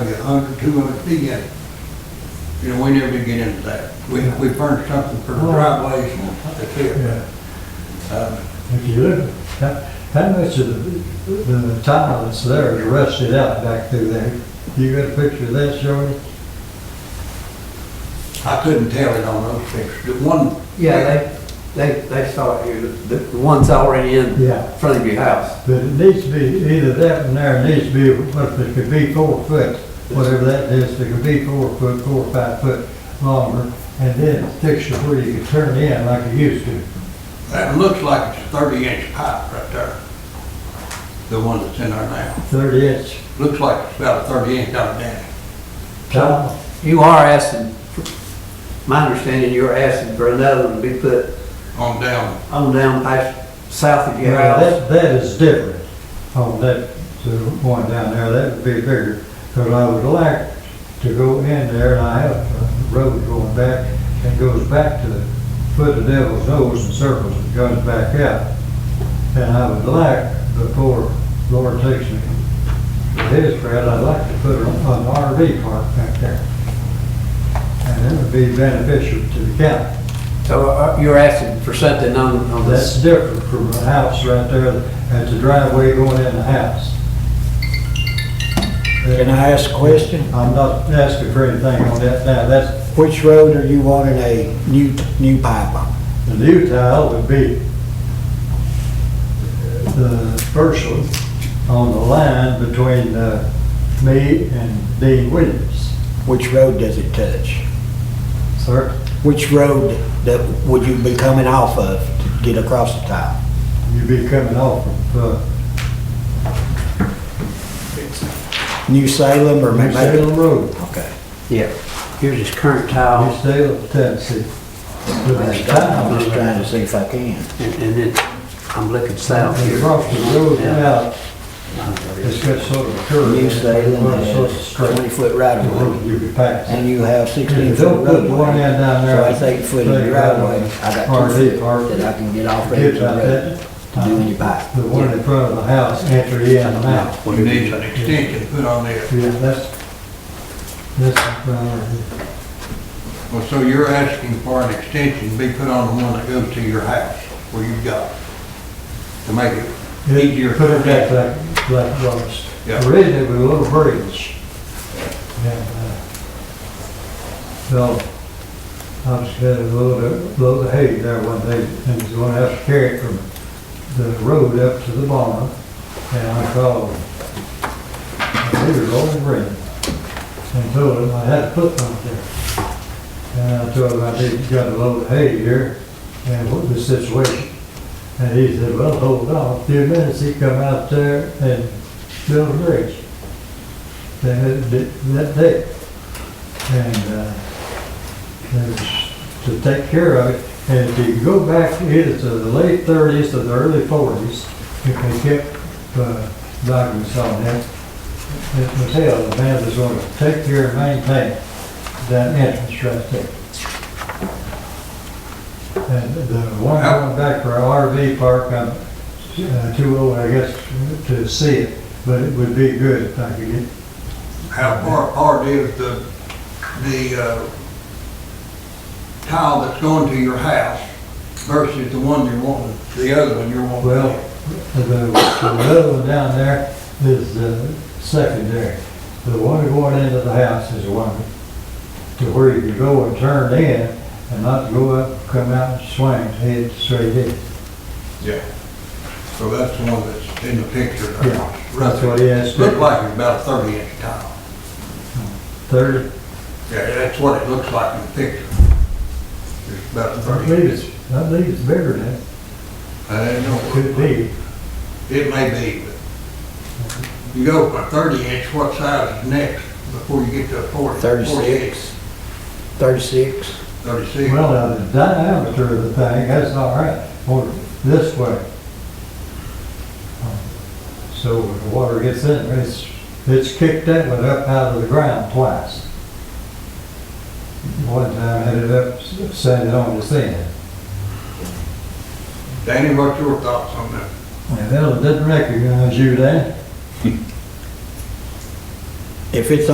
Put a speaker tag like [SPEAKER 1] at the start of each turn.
[SPEAKER 1] like a hundred, two hundred feet in. You know, we never did get into that. We, we furnished something for the driveways and that's it.
[SPEAKER 2] Yeah,
[SPEAKER 1] Um,
[SPEAKER 2] if you look, that, that much of the, the tile that's there is rusted out back through there. You got a picture of that, Shorty?
[SPEAKER 1] I couldn't tell it on those pictures. The one,
[SPEAKER 3] Yeah, they, they, they saw it here, the, the ones already in
[SPEAKER 2] Yeah.
[SPEAKER 3] front of your house.
[SPEAKER 2] But it needs to be, either that one there needs to be, what if it could be four foot, whatever that is, it could be four foot, four or five foot longer, and then fix it where you could turn in like you used to.
[SPEAKER 1] that looks like it's a thirty inch pipe right there. The one that's in there now.
[SPEAKER 2] Thirty inch
[SPEAKER 1] Looks like it's about a thirty inch down there.
[SPEAKER 2] tile.
[SPEAKER 3] You are asking, for- my understanding, you're asking for another one to be put
[SPEAKER 1] on down.
[SPEAKER 3] on down past, south of your
[SPEAKER 2] Now,
[SPEAKER 3] house.
[SPEAKER 2] that, that is different on that, the one down there, that would be bigger, because I would like to go in there, and I have a road going back, and goes back to the foot of Devil's Nose and circles and comes back out. And I would like, before Lord takes me to his trail, I'd like to put an an RV park back there. And it would be beneficial to the county.
[SPEAKER 3] So uh, you're asking for something on, on this.
[SPEAKER 2] That's different from a house right there, that's a driveway going in the house.
[SPEAKER 4] Can I ask a question?
[SPEAKER 2] I'm not asking for anything on that now, that's,
[SPEAKER 4] Which road are you wanting a new, new pipe on?
[SPEAKER 2] the new tile would be the first one on the line between, uh, me and Dean Williams,
[SPEAKER 4] Which road does it touch?
[SPEAKER 2] sir.
[SPEAKER 4] Which road that would you be coming off of to get across the tile?
[SPEAKER 2] You'd be coming off of, uh,
[SPEAKER 4] New Salem or
[SPEAKER 2] New
[SPEAKER 4] maybe?
[SPEAKER 2] Salem Road,
[SPEAKER 4] Okay.
[SPEAKER 3] Yeah. Here's his current
[SPEAKER 2] New
[SPEAKER 3] tile,
[SPEAKER 2] Salem, Tennessee. But
[SPEAKER 4] I'm
[SPEAKER 2] that
[SPEAKER 4] just I'm
[SPEAKER 2] tile,
[SPEAKER 4] just trying to see if I can.
[SPEAKER 3] and, and then I'm looking south here.
[SPEAKER 2] across the road
[SPEAKER 3] Yeah. Uh,
[SPEAKER 2] out, It's got sort of a curve.
[SPEAKER 4] New Salem
[SPEAKER 2] Well, it's sort of
[SPEAKER 4] has
[SPEAKER 2] straight.
[SPEAKER 4] twenty foot right
[SPEAKER 2] The
[SPEAKER 4] of way
[SPEAKER 2] road you could pass.
[SPEAKER 4] and you have sixteen
[SPEAKER 2] Don't
[SPEAKER 4] foot
[SPEAKER 2] put
[SPEAKER 4] roadway.
[SPEAKER 2] one end down there.
[SPEAKER 4] So that's eight foot of your right of way. I got
[SPEAKER 2] RV
[SPEAKER 4] two
[SPEAKER 2] park.
[SPEAKER 4] foot that I can get off of
[SPEAKER 2] Forget
[SPEAKER 4] the
[SPEAKER 2] about
[SPEAKER 4] road
[SPEAKER 2] that.
[SPEAKER 4] to do any pipe.
[SPEAKER 2] The one in front of the house, enter in and out.
[SPEAKER 1] We need an extension put on there.
[SPEAKER 2] Yeah, that's, that's uh, the priority.
[SPEAKER 1] Well, so you're asking for an extension be put on the one that goes to your house where you got it, to make it easier.
[SPEAKER 2] Put it back like, like Lois.
[SPEAKER 1] Yeah.
[SPEAKER 2] Originally, we were a little bridge. And, uh, So, I was gonna load of, load of hay there one day, and was gonna have to carry it from the road up to the barn. And I called, and they were rolling green, and told them I had to put them there. And I told him I did, got a load of hay here, and what the situation. And he said, well, hold on, a few minutes, he come out there and built a bridge. They had it that day. And, uh, it was to take care of it. And if you go back either to the late thirties or the early forties, if they kept, uh, documents on that, it was held, the man was gonna take care and maintain that entrance right there. And the one going back for our RV park, I'm uh, too old, I guess, to see it, but it would be good if I could get,
[SPEAKER 1] How far apart is the, the, uh, tile that's going to your house versus the one you're wanting, the other one you're wanting?
[SPEAKER 2] well, the, the other one down there is uh, secondary. The one going into the house is the one to where you can go and turn in and not go up, come out and swing, head straight in.
[SPEAKER 1] Yeah. So that's the one that's in the picture. there.
[SPEAKER 2] Yeah, that's what he has.
[SPEAKER 1] Looked like it's about a thirty inch tile.
[SPEAKER 2] Thirty,
[SPEAKER 1] Yeah, that's what it looks like in the picture. It's about a
[SPEAKER 2] I
[SPEAKER 1] thirty.
[SPEAKER 2] believe it's, I believe it's bigger than that.
[SPEAKER 1] I don't know.
[SPEAKER 2] Could be,
[SPEAKER 1] It may be, but you go from a thirty inch, what size is next before you get to a forty? 48,
[SPEAKER 4] Thirty-six? Thirty-six?
[SPEAKER 1] Thirty-six.
[SPEAKER 2] well, now, the diameter of the thing, that's all right, or this way. So when the water gets in, it's, it's kicked that one up out of the ground twice. One time had it up, sanded on the sand,
[SPEAKER 1] Danny, what's your thoughts on that?
[SPEAKER 2] and it didn't recognize you then.
[SPEAKER 4] If it's